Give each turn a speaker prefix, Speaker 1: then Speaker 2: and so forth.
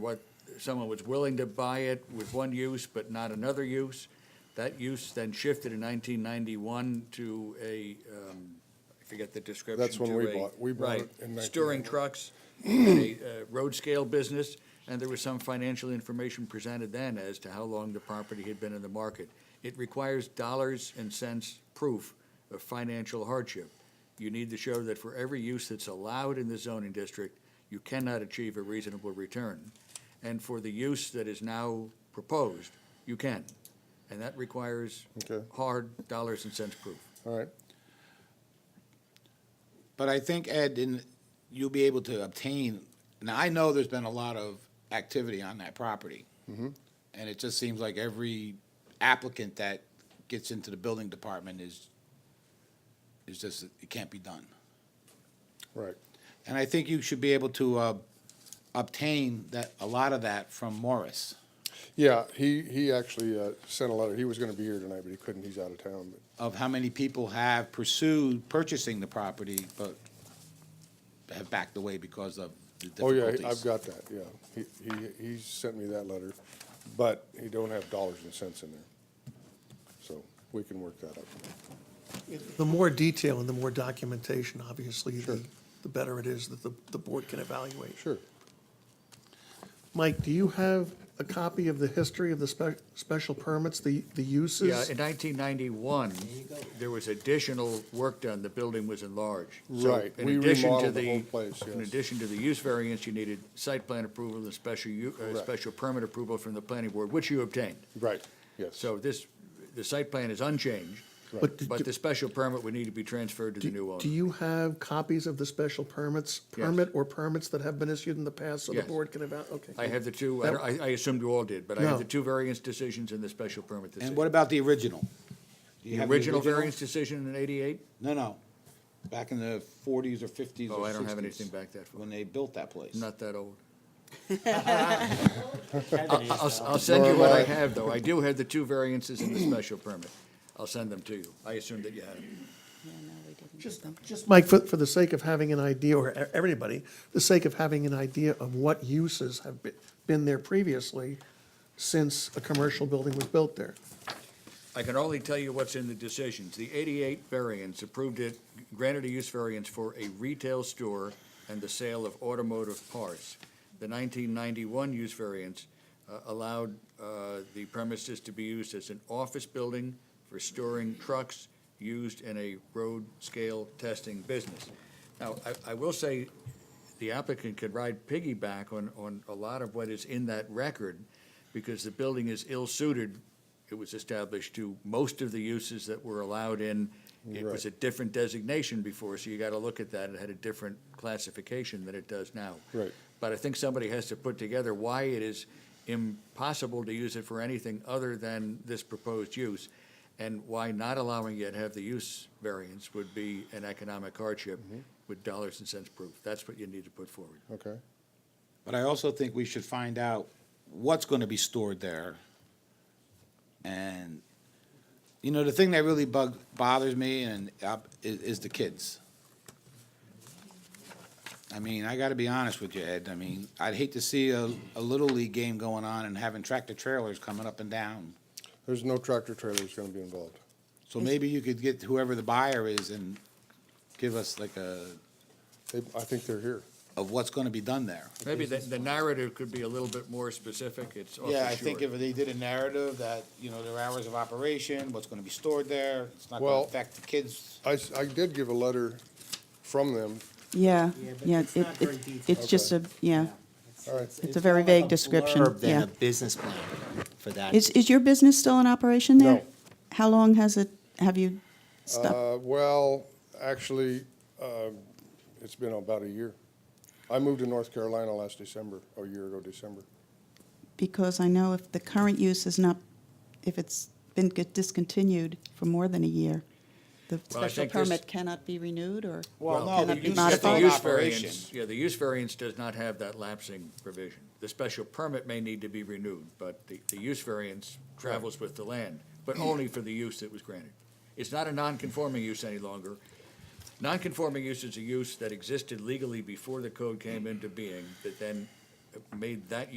Speaker 1: what, someone was willing to buy it with one use but not another use. That use then shifted in nineteen ninety-one to a, um, I forget the description.
Speaker 2: That's when
Speaker 1: to
Speaker 2: we
Speaker 1: a-
Speaker 2: bought- we bought it
Speaker 1: right,
Speaker 2: in 1991.
Speaker 1: Storing trucks, a uh, road scale business, and there was some financial information presented then as to how long the property had been in the market. It requires dollars and cents proof of financial hardship. You need to show that for every use that's allowed in the zoning district, you cannot achieve a reasonable return. And for the use that is now proposed, you can. And that requires
Speaker 2: Okay.
Speaker 1: hard dollars and cents proof.
Speaker 2: All right,
Speaker 3: But I think, Ed, in, you'll be able to obtain, now I know there's been a lot of activity on that property. And it just seems like every applicant that gets into the building department is, is just, it can't be done.
Speaker 2: right.
Speaker 3: And I think you should be able to, uh, obtain that, a lot of that from Morris.
Speaker 2: Yeah, he, he actually uh, sent a letter. He was going to be here tonight, but he couldn't. He's out of town. But
Speaker 3: of how many people have pursued purchasing the property, but have backed away because of the
Speaker 2: Oh, yeah,
Speaker 3: difficulties.
Speaker 2: I've got that, yeah. He, he, he sent me that letter, but he don't have dollars and cents in there. So we can work that out.
Speaker 4: The more detail and the more documentation, obviously, the, the better it is that the, the board can evaluate.
Speaker 2: Sure.
Speaker 4: Mike, do you have a copy of the history of the spe- special permits, the, the uses?
Speaker 1: Yeah, in nineteen ninety-one, there was additional work done, the building was enlarged. So
Speaker 2: Right,
Speaker 1: in
Speaker 2: we
Speaker 1: addition to
Speaker 2: remodeled the whole place,
Speaker 1: In
Speaker 2: yes.
Speaker 1: addition to the use variance, you needed site plan approval and special, u- uh,
Speaker 2: Correct.
Speaker 1: special permit approval from the planning board, which you obtained.
Speaker 2: Right, yes.
Speaker 1: So this, the site plan is unchanged,
Speaker 2: Right.
Speaker 4: But did
Speaker 1: but
Speaker 4: you-
Speaker 1: the special permit would need to be transferred to the new
Speaker 4: Do do
Speaker 1: owner.
Speaker 4: you have copies of the special permits, permit or permits that have been issued in the past so the
Speaker 1: Yes.
Speaker 4: board can evaluate? Okay.
Speaker 1: I have the two, I, don't- I I assumed you all did, but I have
Speaker 4: No.
Speaker 1: the two variance decisions and the special permit decision.
Speaker 3: And what about the original? Do you
Speaker 1: The
Speaker 3: have
Speaker 1: original variance decision in eighty-eight?
Speaker 3: No, no, back in the forties or fifties or
Speaker 1: Oh,
Speaker 3: sixties.
Speaker 1: I don't have anything back that far.
Speaker 3: When they built that place.
Speaker 1: Not that old. I'll, I'll- I'll send you what I have, though. I do have the two variances in the special permit. I'll send them to you. I assume that you had them.
Speaker 5: Yeah, no, we didn't do
Speaker 4: Just,
Speaker 5: them.
Speaker 4: just, Mike, for, for the sake of having an idea, or e- everybody, the sake of having an idea of what uses have been, been there previously since a commercial building was built there.
Speaker 1: I can only tell you what's in the decisions. The eighty-eight variance approved it, granted a use variance for a retail store and the sale of automotive parts. The nineteen ninety-one use variance uh, allowed uh, the premises to be used as an office building for storing trucks used in a road scale testing business. Now, I, I will say, the applicant could ride piggyback on, on a lot of what is in that record, because the building is ill-suited, it was established to most of the uses that were allowed in. It was a different designation before, so you gotta look at that, it had a different classification than it does now.
Speaker 2: Right.
Speaker 1: But I think somebody has to put together why it is impossible to use it for anything other than this proposed use, and why not allowing it to have the use variance would be an economic hardship
Speaker 3: Mm-hmm.
Speaker 1: with dollars and cents proof. That's what you need to put forward.
Speaker 2: Okay,
Speaker 3: But I also think we should find out what's gonna be stored there. And, you know, the thing that really bug, bothers me and, uh, is, is the kids. I mean, I gotta be honest with you, Ed, I mean, I'd hate to see a, a Little League game going on and having tractor trailers coming up and down.
Speaker 2: there's no tractor trailers going to be involved.
Speaker 3: So maybe you could get whoever the buyer is and give us like a,
Speaker 2: They, I think they're here.
Speaker 3: of what's gonna be done there.
Speaker 1: Maybe the, the narrative could be a little bit more specific, it's awfully
Speaker 3: Yeah, I think if
Speaker 1: short.
Speaker 3: they did a narrative that, you know, their hours of operation, what's gonna be stored there, it's not gonna
Speaker 2: Well-
Speaker 3: affect the kids.
Speaker 2: I, s- I did give a letter from them.
Speaker 5: Yeah,
Speaker 6: but
Speaker 5: yeah,
Speaker 6: it's
Speaker 5: it,
Speaker 6: not very
Speaker 5: it,
Speaker 6: detailed.
Speaker 5: it's just a, yeah.
Speaker 2: All right,
Speaker 5: It's a very
Speaker 6: more like
Speaker 5: vague description,
Speaker 6: blurb Than
Speaker 5: yeah.
Speaker 6: a business plan for that.
Speaker 5: Is, is your business still in operation there?
Speaker 2: No.
Speaker 5: How long has it, have you stopped?
Speaker 2: uh, well, actually, um, it's been about a year. I moved to North Carolina last December, oh, a year ago December.
Speaker 5: Because I know if the current use is not, if it's been get discontinued for more than a year, the
Speaker 1: Well, I
Speaker 5: special
Speaker 1: think this-
Speaker 5: permit cannot be renewed or
Speaker 3: Well, no,
Speaker 5: cannot
Speaker 3: the
Speaker 5: be
Speaker 3: use-
Speaker 1: But the
Speaker 3: Modified
Speaker 1: use
Speaker 5: modified?
Speaker 3: operation.
Speaker 1: variance, yeah, the use variance does not have that lapsing provision. The special permit may need to be renewed, but the, the use variance travels with the land, but only for the use that was granted. It's not a non-conforming use any longer. Non-conforming use is a use that existed legally before the code came into being, that then made that